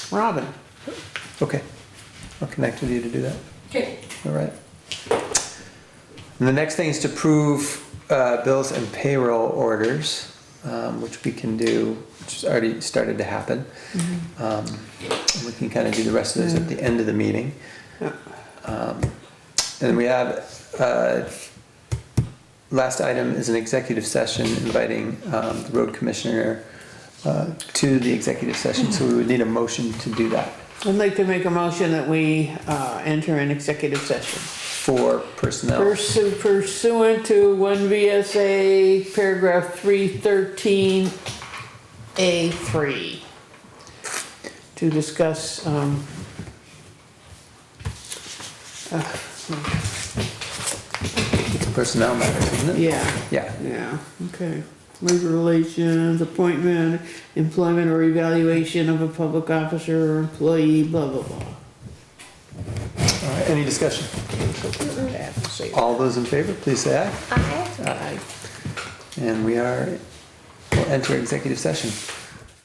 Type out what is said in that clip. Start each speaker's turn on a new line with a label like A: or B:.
A: Robin,
B: Okay, I'll connect with you to do that.
C: Okay.
B: All right. And the next thing is to approve uh, bills and payroll orders, um, which we can do, which has already started to happen. Um, and We can kind of do the rest of those at the end of the meeting. Um, And we have, uh, last item is an executive session inviting um, the road commissioner uh, to the executive session, so we would need a motion to do that
A: I'd like to make a motion that we uh, enter an executive session.
B: for personnel.
A: Pursu- Pursuant to one VSA paragraph three thirteen A three. To discuss, um. uh,
B: It's personnel matters, isn't it?
A: Yeah,
B: Yeah,
A: yeah, okay. Labor relations, appointment, employment or evaluation of a public officer or employee, blah, blah, blah.
B: all right, any discussion?
A: I have to say
B: All those in favor, please say aye.
C: Aye.
A: aye.
B: And we are, we'll enter executive session.